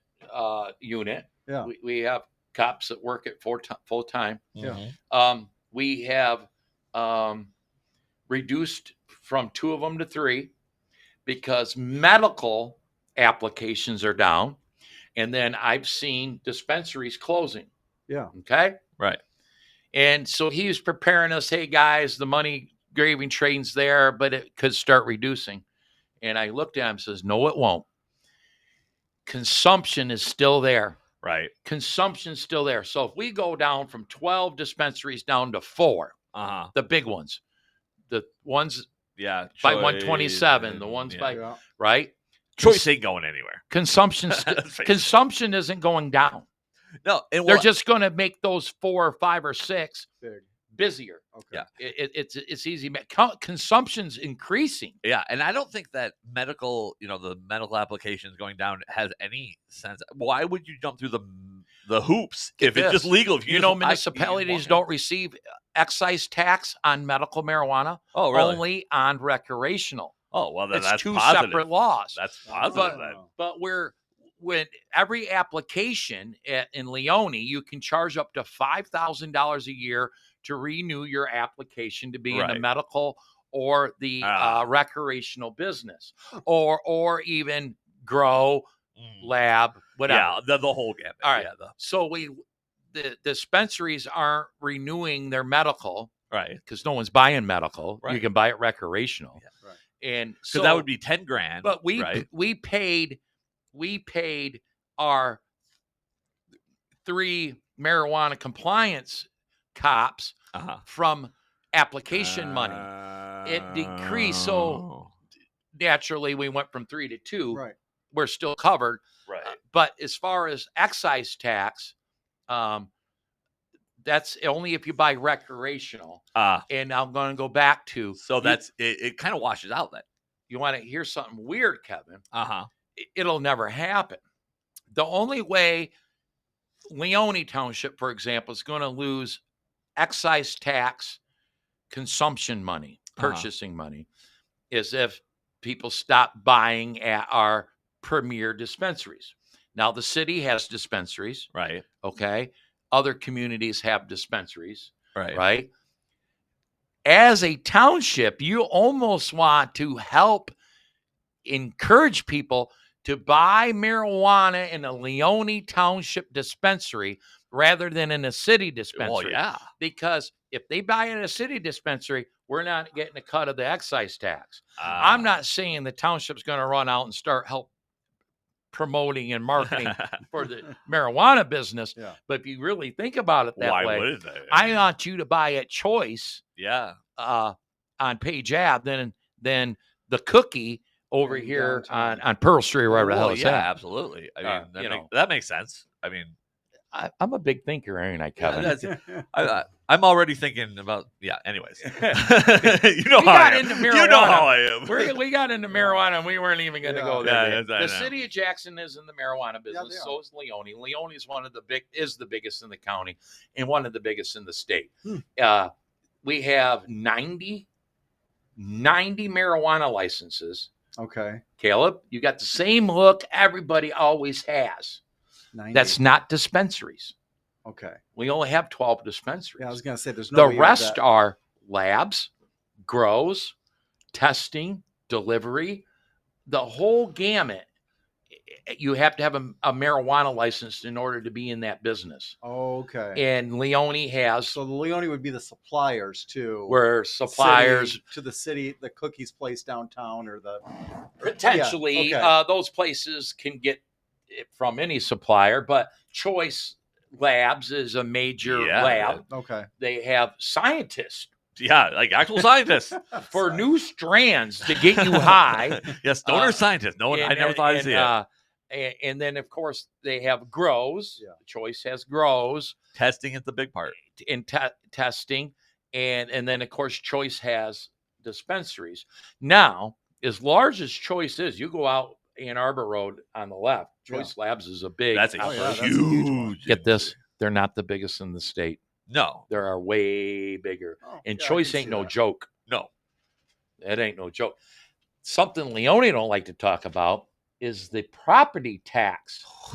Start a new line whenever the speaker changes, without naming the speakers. uh, unit.
Yeah.
We, we have cops that work it full time. Full time.
Yeah.
Mhm.
Um, we have um, reduced from two of them to three because medical applications are down. And then I've seen dispensaries closing.
Yeah.
Okay.
Right.
And so he was preparing us hey, guys, the money graving train's there, but it could start reducing. And I looked at him and says, no, it won't. Consumption is still there
Right.
consumption's still there. So if we go down from 12 dispensaries down to four,
Uh huh.
the big ones, the ones
Yeah.
By
Choice
127, the
and-
ones
yeah.
by-
Yeah.
right,
choice ain't going anywhere.
consumption
Let's face it.
consumption isn't going down.
no, and
They're
well,
just going to make those four or five or six
Big.
busier.
Okay.
Yeah.
It, it- it's it's easy. ma- co- Consumption's increasing.
Yeah, and I don't think that medical, you know, the medical applications going down has any sense. Why would you jump through the the hoops
Get
if it's just
this.
legal? If
You
just-
know,
I- you
municipalities
want-
don't receive uh, excise tax on medical marijuana,
Oh, really?
only on recreational.
oh, well, then
It's
that's
two
positive.
separate laws.
That's
Oh,
positive. then.
but we're when every application at, in Leone, you can charge up to five thousand dollars a year to renew your application to be in the
Right.
medical or the
Ah.
uh, recreational business, or or even grow
Mm.
lab whatever.
yeah, the, the whole gamut.
uh, All right.
Yeah, the,
So we the dispensaries aren't renewing their medical
right.
because no one's buying medical. You
Right.
can buy it recreational,
Yeah. Right.
and
So
so
that would be ten grand.
but we
right?
we paid we paid our three marijuana compliance cops
uh-huh.
from application
Ah.
money. It decreased,
Oh.
so- Naturally, we went from three to two.
Right.
We're still covered,
right.
but as far as excise tax, um, that's only if you buy recreational.
Uh,
And I'm going to go back to
so
you-
that's it. It kind of washes out that.
you want to hear something weird, Kevin.
Uh huh.
i- it'll never happen. The only way Leone Township, for example, is going to lose excise tax, consumption money,
Uh-huh.
purchasing money, is if people stop buying at our premier dispensaries. Now, the city has dispensaries,
Right.
okay? Other communities have dispensaries,
Right.
right? As a township, you almost want to help encourage people to buy marijuana in a Leone Township dispensary rather than in a city
Well,
dispensary.
yeah.
Because if they buy in a city dispensary, we're not getting a cut of the excise tax.
Uh.
I'm not saying the township's going to run out and start help promoting and
Uh,
marketing for the marijuana business.
Yeah.
But if you really think about it that
Why
way,
would they?
I want you to buy at choice
yeah.
uh, on Page Ave than than the cookie over
In
here on,
downtown.
on Pearl Street, wherever the
Well,
hell it's
yeah,
at.
absolutely. I mean,
Uh,
that,
you
make-
know.
that makes sense. I mean,
I, I'm a big thinker, ain't I, Kevin?
that's-
Yeah.
I, I, I'm already thinking about yeah. Anyways, you know
We
how
got
I am.
into
You know how I am.
We're, we got into marijuana and we weren't even going to
Yeah.
go there.
Yeah,
Dave.
yes, I
the
know.
city of Jackson is in the marijuana business.
they
so is Leone. Leone is one of the big is the biggest in the county and one of the biggest in the state.
Hmm.
Uh, we have 90, 90 marijuana licenses.
okay.
Caleb, you got the same look everybody always has.
90.
That's not dispensaries.
okay.
We only have 12 dispensaries.
Yeah, I was gonna say there's no.
the
way you have
rest
that-
are labs, grows, testing, delivery, the whole gamut. You have to have a, a marijuana license in order to be in that business.
Okay.
And Leone has
So the Leone would be the suppliers too.
where suppliers
city- to the city, the cookies place downtown, or the
potentially
okay.
uh, those places can get it from any supplier, but Choice Labs is a major
Yeah,
lab.
okay
They have scientists
yeah, like actual scientists
for new strands to get you high.
yes, donor
Uh,
scientists. No one. I
And-
never thought I'd
and,
see it.
uh, and, and then, of course, they have grows.
Yeah.
Choice has grows
Testing is the big part.
t- in te- testing, and and then of course, Choice has dispensaries. Now, as large as Choice is, you go out Ann Arbor Road on the left.
Yeah.
Choice Labs is a big.
That's a
Oh, yeah, that's a
operation.
huge one.
huge.
Get this, they're not the biggest in the state.
No,
There are way bigger,
Oh,
and
yeah, I
Choice
can
ain't
see
no
that.
joke.
no.
That ain't no joke. Something Leone don't like to talk about is the property tax